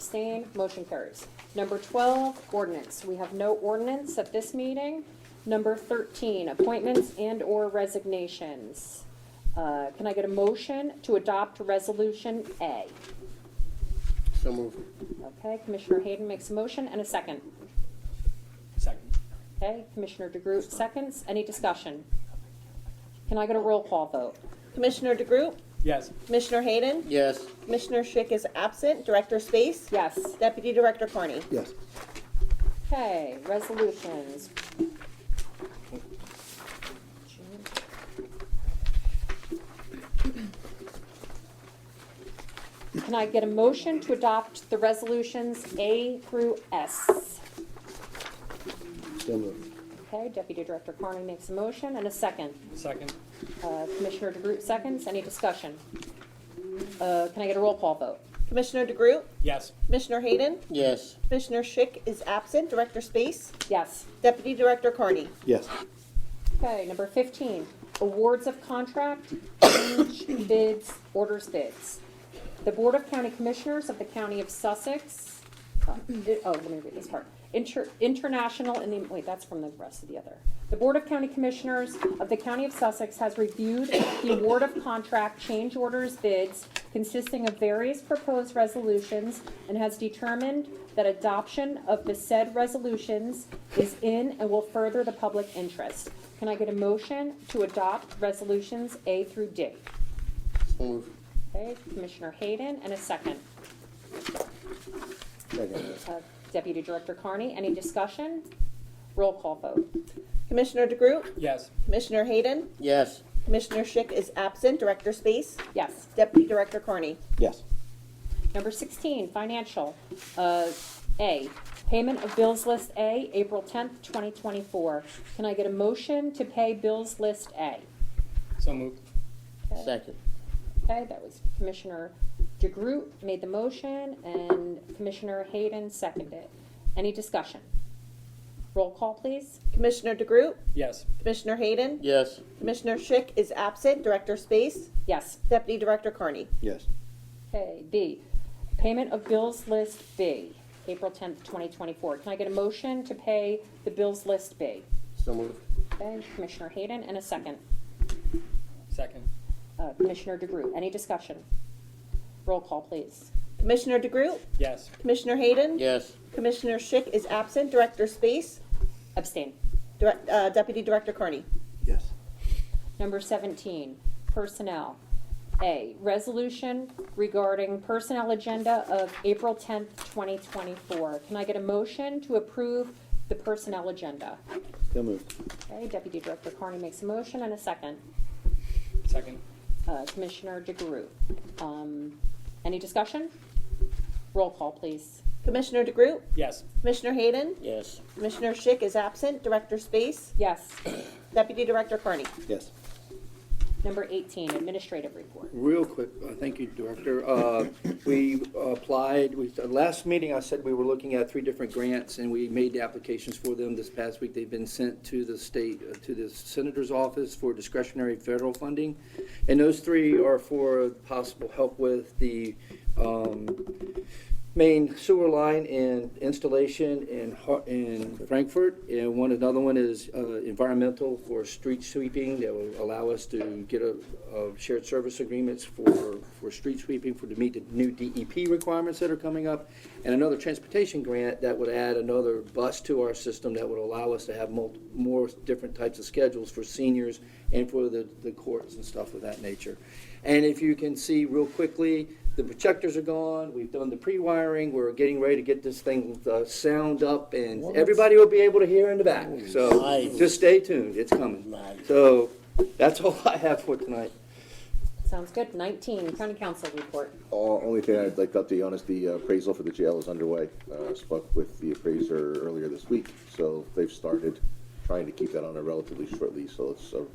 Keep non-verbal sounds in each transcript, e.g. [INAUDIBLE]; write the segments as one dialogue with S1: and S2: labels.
S1: Abstain? Motion carries. Number 12, ordinance. We have no ordinance at this meeting. Number 13, appointments and/or resignations. Uh, Can I get a motion to adopt Resolution A?
S2: So moved.
S1: Okay, Commissioner Hayden makes a motion and a second.
S3: Second.
S1: Okay, Commissioner DeGroot seconds. Any discussion? Can I get a roll call vote?
S4: Commissioner DeGroot,
S3: Yes.
S4: Commissioner Hayden,
S2: Yes.
S4: Commissioner Schick is absent, Director Space,
S1: Yes.
S4: Deputy Director Carney.
S2: Yes.
S1: Okay, resolutions. Can I get a motion to adopt the resolutions A through S?
S2: So moved.
S1: Okay, Deputy Director Carney makes a motion and a second.
S3: Second.
S1: Uh, Commissioner DeGroot seconds. Any discussion? Uh, Can I get a roll call vote?
S4: Commissioner DeGroot,
S3: Yes.
S4: Commissioner Hayden,
S2: Yes.
S4: Commissioner Schick is absent, Director Space,
S1: Yes.
S4: Deputy Director Carney.
S2: Yes.
S1: Okay, number fifteen, awards of contract, change [COUGHS] bids, orders bids. The Board of County Commissioners of the County of Sussex, uh, it- oh, let me read this part. Inter- International, and then, wait, that's from the rest of the other. The Board of County Commissioners of the County of Sussex has reviewed the award of contract change orders bids consisting of various proposed resolutions and has determined that adoption of the said resolutions is in and will further the public interest. Can I get a motion to adopt resolutions A through D?
S2: So moved.
S1: Okay, Commissioner Hayden, and a second.
S2: Second.
S1: Uh, Deputy Director Carney, any discussion? Roll call vote.
S4: Commissioner DeGroot,
S3: Yes.
S4: Commissioner Hayden,
S2: Yes.
S4: Commissioner Schick is absent, Director Space,
S1: Yes.
S4: Deputy Director Carney.
S2: Yes.
S1: Number 16, financial, uh, A, payment of bills list A, April 10th, 2024. Can I get a motion to pay bills list A?
S3: So moved.
S1: Okay.
S2: Second.
S1: Okay, that was Commissioner DeGroot made the motion and Commissioner Hayden seconded. Any discussion? Roll call, please.
S4: Commissioner DeGroot,
S3: Yes.
S4: Commissioner Hayden,
S2: Yes.
S4: Commissioner Schick is absent, Director Space,
S1: Yes.
S4: Deputy Director Carney.
S2: Yes.
S1: Okay, B, payment of bills list B, April 10th, 2024. Can I get a motion to pay the bills list B?
S2: So moved.
S1: Okay, Commissioner Hayden, and a second.
S3: Second.
S1: Uh, Commissioner DeGroot, any discussion? Roll call, please.
S4: Commissioner DeGroot,
S3: Yes.
S4: Commissioner Hayden,
S2: Yes.
S4: Commissioner Schick is absent, Director Space,
S1: Abstain.
S4: Direct- uh, Deputy Director Carney.
S2: Yes.
S1: Number 17, personnel. A, resolution regarding personnel agenda of April 10th, 2024. Can I get a motion to approve the personnel agenda?
S2: So moved.
S1: Okay, Deputy Director Carney makes a motion and a second.
S3: Second.
S1: Uh, Commissioner DeGroot. Um, Any discussion? Roll call, please.
S4: Commissioner DeGroot,
S3: Yes.
S4: Commissioner Hayden,
S2: Yes.
S4: Commissioner Schick is absent, Director Space,
S1: Yes.
S4: Deputy Director Carney.
S2: Yes.
S1: Number 18, administrative report.
S5: Real quick, uh, thank you, Director. Uh, We applied, we, the last meeting, I said we were looking at three different grants, and we made the applications for them this past week. They've been sent to the state, uh, to the Senator's Office for discretionary federal funding. And those three are for possible help with the um, main sewer line and installation in, Har- in Frankfurt. And one, another one is uh, environmental for street sweeping that will allow us to get a, a shared service agreements for, for street sweeping for, to meet the new DEP requirements that are coming up. And another transportation grant that would add another bus to our system that would allow us to have mul- more different types of schedules for seniors and for the, the courts and stuff of that nature. And if you can see real quickly, the projectors are gone, we've done the pre-wiring, we're getting ready to get this thing, uh sound up, and everybody will be able to hear in the back. So
S2: Nice.
S5: just stay tuned, it's coming.
S2: Nice.
S5: So that's all [LAUGHS] I have for tonight.
S1: Sounds good. 19, county council report.
S6: O- Only thing I'd like to update you on is the appraisal for the jail is underway. Uh, Spoke with the appraiser earlier this week, so they've started trying to keep that on a relatively short lease, so it's a-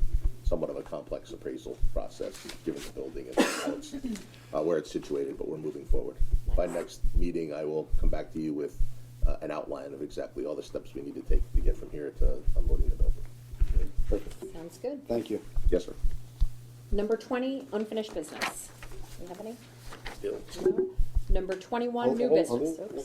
S6: somewhat of a complex appraisal process, given the building and how it's, uh, where it's situated, but we're moving forward. By next meeting, I will come back to you with uh, an outline of exactly all the steps we need to take to get from here to unloading the building.
S2: Perfect.
S1: Sounds good.
S2: Thank you. Yes, sir.
S1: Number 20, unfinished business. Do you have any?
S2: Bill.
S1: No. Number twenty-one, new
S2: Hold-
S1: business.
S2: hold-
S1: Oops.